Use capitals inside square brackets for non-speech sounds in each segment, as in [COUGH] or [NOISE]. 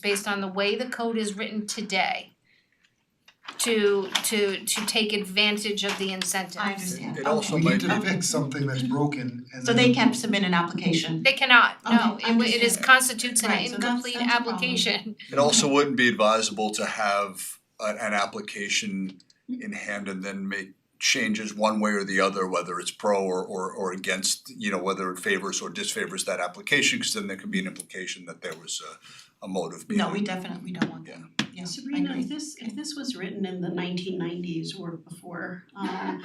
based on the way the code is written today to to to take advantage of the incentives. I understand. It also We might need be. to fix something that's broken and So they can submit an application. They cannot, no, Okay, it wa- it is understand. constitutes an Right, so that's- incomplete that's a problem. application. It also wouldn't be advisable to have a- an application in hand and then make changes one way or the other, whether it's pro or or or against, you know, whether it favors or disfavors that application, cause then there could be an implication that there was a a motive behind. No, we definitely don't want that. Yeah, I Sabrina, if agree. this, if this was written in the nineteen nineties or before, um,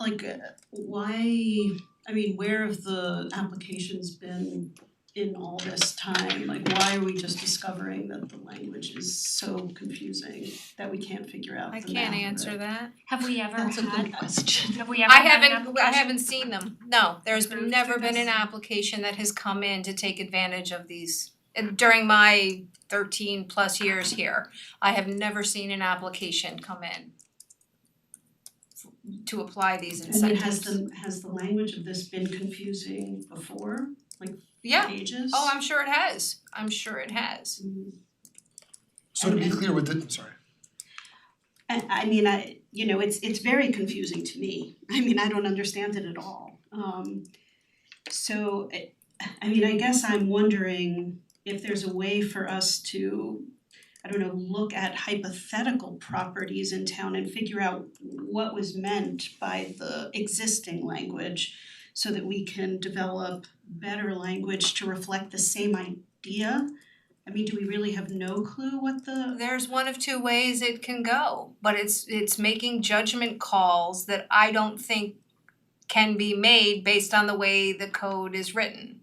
like, uh, why, I mean, where have the applications been in all this time? Like, why are we just discovering that the language is so confusing that we can't figure [LAUGHS] out I the math can't of answer it? that. Have we ever That's a good had, question. have we ever I had an haven't, I application? haven't seen them, no, there's been Approved never through been an this? application that has come in to take advantage of these. And During my thirteen plus years here, I have never seen an application come in f- to apply these And then has incentives. the, has the language of this been confusing before, like Yeah, ages? oh, I'm sure it has, I'm sure it has. Mm. So to be and- clear with the, sorry, I I mean, I, you know, it's it's very confusing to me. [LAUGHS] I mean, I don't understand it at all. Um so I I mean, I guess I'm wondering if there's a way for us to, I don't know, look at hypothetical properties in town and figure out what was meant by the existing language so that we can develop better language to reflect the same idea. I mean, do we really have no clue what the There's one of two ways it can go, but it's it's making judgment calls that I don't think can be made based on the way the code is written.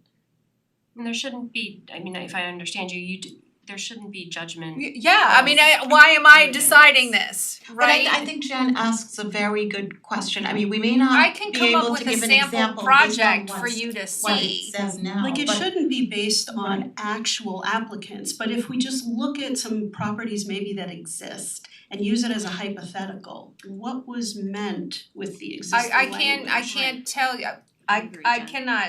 And there shouldn't be, I mean, if I understand you, you do, there shouldn't be judgment. Y- Yeah, I mean, I, why am I deciding this, But I right? I think Jen asks a very good question. I mean, we may not I can be come up able with to a give an sample example based on project for what's you to see. what it says now, Like it but- shouldn't be based on actual applicants, but if we just look at some properties maybe that exist and use it as a hypothetical, what was meant with the existing I I language? can't, I can't tell you, I I agree, I Jen. cannot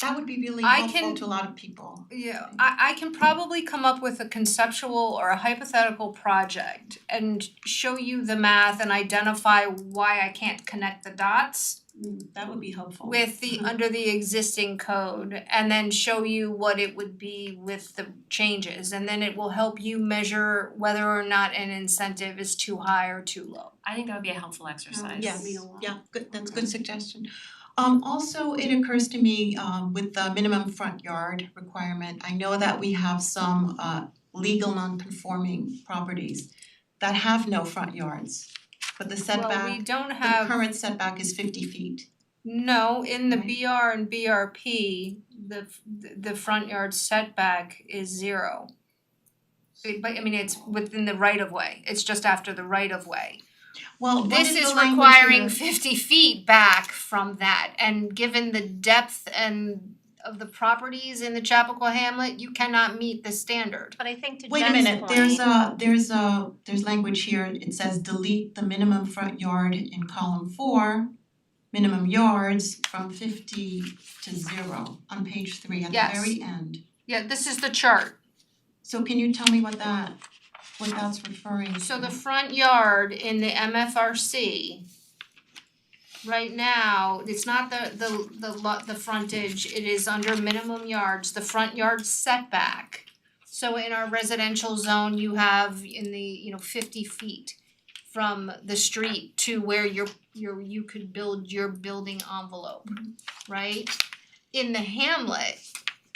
That would be really I helpful can- to a lot of people. Yeah, I I can probably come up with a conceptual or a hypothetical project and show you the math and identify why I can't connect the dots Mm, That would be helpful. with the Mhm. under the existing code and then show you what it would be with the changes and then it will help you measure whether or not an incentive is too high or too low. I think that would be a helpful exercise. Yes, mean a lot. yeah, good, that's a good suggestion. Um also, it occurs to me um with the minimum front yard requirement, I know that we have some uh legal non-conforming properties that have no front yards, but the Well, we setback, don't the have current setback is fifty feet. No, in the Right. BR and BRP, the f- the front yard setback is zero. It- But I mean, it's within the right of way, it's just after the right of way. Well, what This is is the language requiring here? fifty feet back from that, and given the depth and of the properties in the Chappaqua Hamlet, you cannot meet the standard. But I think to Jen's Wait point. a minute, there's a, there's a, there's language here, it says delete the minimum front yard in column four, minimum yards from fifty to zero on page three at Yes. the very end. Yeah, this is the chart. So can you tell me what that, what that's referring to? So the front yard in the MFRC right now, it's not the the the lo- the frontage, it is under minimum yards, the front yard setback. So in our residential zone, you have in the, you know, fifty feet from the street to where your your you could build your building envelope, right? In the hamlet,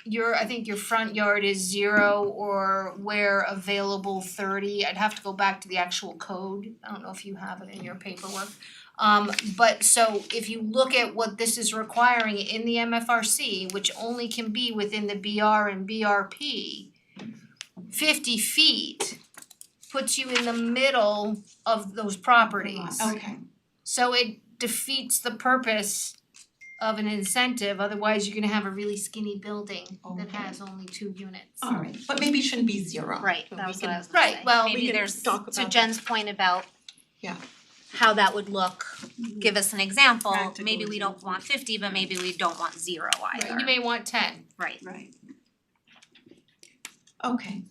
your I think your front yard is zero or where available thirty, I'd have to go back to the actual code, I don't know if you have it in your paperwork. Um but so if you look at what this is requiring in the MFRC, which only can be within the BR and BRP, fifty feet puts you in the middle of those properties. Okay, So it defeats the purpose of an incentive, otherwise you're gonna have a really skinny building that Okay. Oh, has only two units. alright, but maybe it shouldn't be zero. Right, But that we was can- what I was gonna Right, say. well, we Maybe can there's, talk to about Jen's point about Yeah. how that would look, give us an example, Practical maybe we don't want fifty, but maybe we don't want zero either, You may want ten. right? Right. Okay,